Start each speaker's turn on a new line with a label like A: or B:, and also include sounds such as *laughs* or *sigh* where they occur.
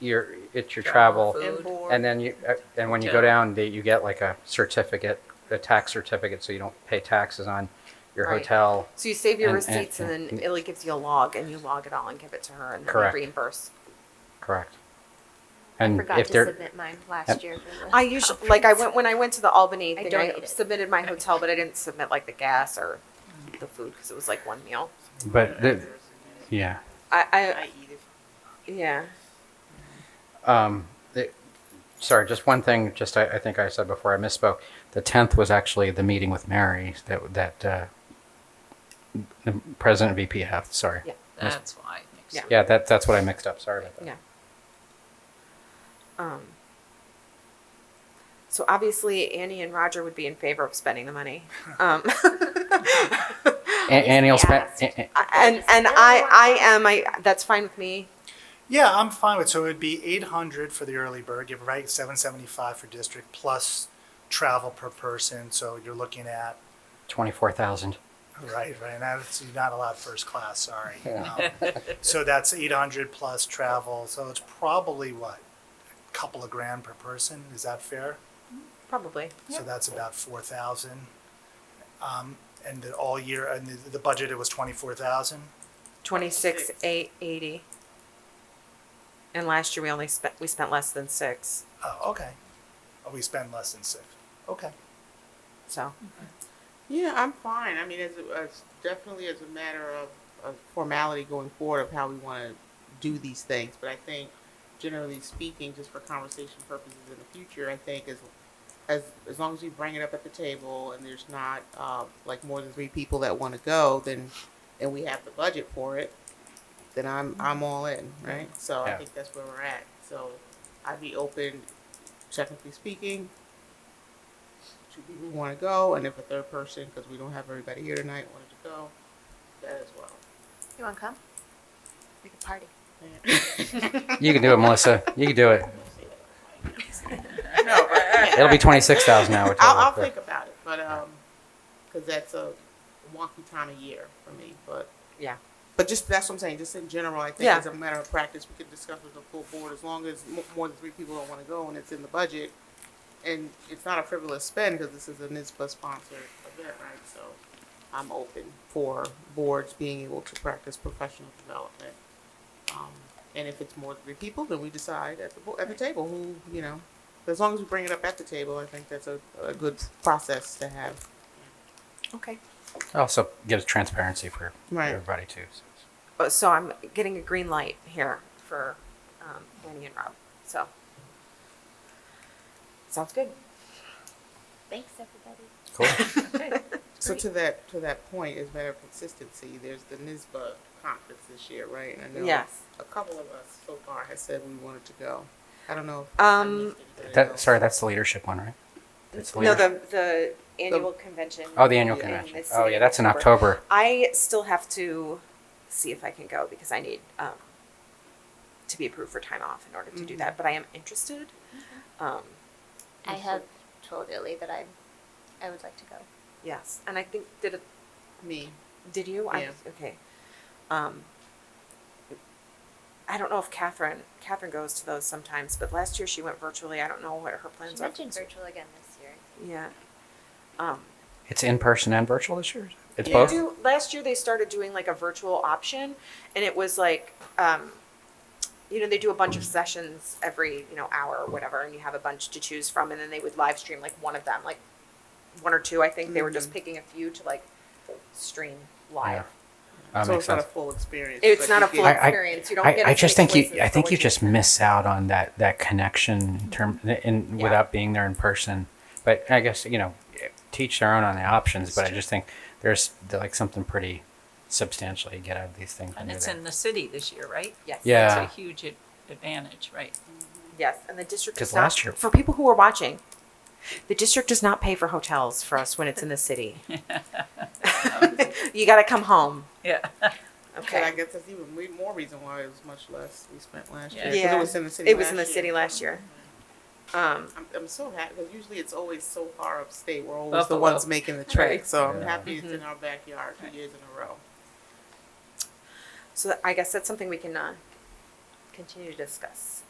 A: your, it's your travel.
B: Travel, food.
C: And board.
A: And then you, uh, and when you go
B: Hotel.
A: down, they- you get like a certificate, a tax certificate, so you don't pay taxes on your
C: Right.
A: hotel.
C: So you save your
A: And- and-
C: receipts and,
A: and-
C: then Illy gives you a log and you log it all and give it to her and then
A: Correct.
C: we reimburse.
A: Correct.
D: I
A: And
D: forgot
A: Mm. if
D: to
A: they're,
D: submit mine last year. for the
C: I usually like I went when I went to the Albany
D: I
C: thing. I,
D: donated.
C: submitted my hotel, but I didn't submit like the gas or the food because it was like one meal.
A: but, the- yeah.
C: I,
B: I eat it.
C: I yeah.
A: Um, the- Sorry, just one thing, just I, I think I said before, I misspoke. The 10th was actually the meeting with Mary that, that, uh, the president of VPF, sorry.
C: Yeah.
B: That's why. it makes
C: Yeah.
B: sense.
A: Yeah, that, that's what I mixed up, sorry about that.
C: Yeah. Um, so obviously Annie and Roger would be in favor of spending the money. Um, *laughs*
A: A- Annie will spend,
D: asked.
A: a- a-
C: and and I I am I that's fine with me.
E: Yeah, I'm fine with, so it would be eight hundred for the early bird, you're right, seven seventy-five for district, plus travel per person, so you're looking at,
A: 24,000.
E: right, right, now, it's- you're not allowed first class, sorry. Um, So that's eight hundred plus travel, so it's probably what, a couple of grand per person, is that fair?
C: Probably.
E: So that's about four thousand. Um, and the all year, and the, the budget, it was twenty-four thousand?
C: Twenty six eight eighty. And last year we only spent we spent less than six.
E: Oh, okay. Oh, we spend less than six, okay.
C: So
F: Yeah, I'm fine. I mean, as, a- as definitely as a matter of, of formality going forward of how we want to do these things, but I think generally speaking, just for conversation purposes in the future, I think as as as long as we bring it up at the table and there's not uh, like more than three people that want to go, then and we have the budget for it, then I'm I'm all in, right? So I
A: Yeah.
F: think that's where we're at. So I'd be open, technically speaking, two people want to go, and if a third person, because we don't have everybody here tonight, wanted to go, that as well.
D: You want to come? We could party.
A: You can do it, Melissa. You can do it.
F: no, but,
A: It'll be 26,000 now. we're
F: I'll, I'll
A: total.
F: think about it, but um, because that's a wonky time of year for me, but
C: Yeah.
F: But just that's what I'm saying. Just in general, I think
C: Yeah.
F: as a matter of practice, we could discuss with the full board as long as mo- more than three people don't want to go and it's in the budget, and it's not a frivolous spend because this is a NISBA sponsored event, right? So I'm open for boards being able to practice professional development. Um, and if it's more than three people, then we decide at the bo- at the table who you know. As long as we bring it up at the table, I think that's a, a good process to have.
C: okay.
A: Also gives transparency for
F: Right.
A: everybody too. so it's-
C: Oh, so I'm getting a green light here for um, Annie and Rob. So sounds good.
D: Thanks, everybody.
A: Cool.
F: So to that to that point is matter of consistency. There's the NISBA conference this year, right? And I know
C: Yes.
F: a couple of us so far have said we wanted to go. I don't know. If I
C: Um,
F: missed anybody
A: That,
F: else.
A: sorry, that's the leadership one, right? That's the
C: no,
A: leadership.
C: the the annual convention.
A: Oh, the annual
C: in
A: convention.
C: the
A: Oh,
C: city
A: yeah,
C: of
A: that's in October.
C: I still have to see if I can go because I need um, to be approved for time off in order to do
F: Mhm.
C: that. But I am interested. Um,
D: I have told Illy that I, I would like to go.
C: yes, and I think did it,
F: me.
C: did you? I,
F: Yeah.
C: okay. Um, I don't know if Catherine Catherine goes to those sometimes, but last year she went virtually. I don't know what her plans
D: She
C: are.
D: mentioned virtual again this year.
C: Yeah. Um,
A: It's in person and virtual this year? It's
F: Yeah.
A: both? Oh,
C: do last year they started doing like a virtual option and it was like um you know they do a bunch of sessions every you know hour or whatever and you have a bunch to choose from and then they would live stream like one of them like one or two i think they were
F: Mm-hmm.
C: just picking a few to like stream live
A: That
F: so
A: makes
F: it's not a
A: sense.
F: full experience.
C: it's not
F: but you
C: a full
F: get-
A: I- I-
C: experience you don't
A: I,
C: get
A: I
C: as
A: just
C: many
A: think you,
C: voices
A: I
C: for
A: think
C: what
A: you just miss out on that, that connection in term, in,
C: Yeah.
A: without being there in person. But I guess, you know, teach their own on the options, but I just think there's like something pretty substantial you get out of these things. when
B: And
A: you're
B: it's
A: there.
B: in the city this year, right?
C: yes
A: Yeah.
B: It's a huge ad- advantage, right?
C: yes and the district
A: 'Cause
C: does not-
A: last year-
C: for people who are watching the district does not pay for hotels for us when it's in the
F: *laughs*
C: city *laughs* you got to come home
B: Yeah. *laughs*
F: But I
C: okay
F: guess that's even re- more reason why it was much less we spent last year.
B: Yeah.
F: 'cause
C: Yeah.
F: It was in the city.
C: it was
F: last
C: in the
F: year.
C: city last year um
F: I'm, I'm so happy because usually it's always so far upstate. We're always
B: Buffalo.
F: the ones making the trek.
B: Right.
F: So I'm
A: Yeah.
F: happy it's
C: Mm-hmm.
F: in our backyard two years in a row.
C: So that- I guess that's something we can uh, continue to discuss.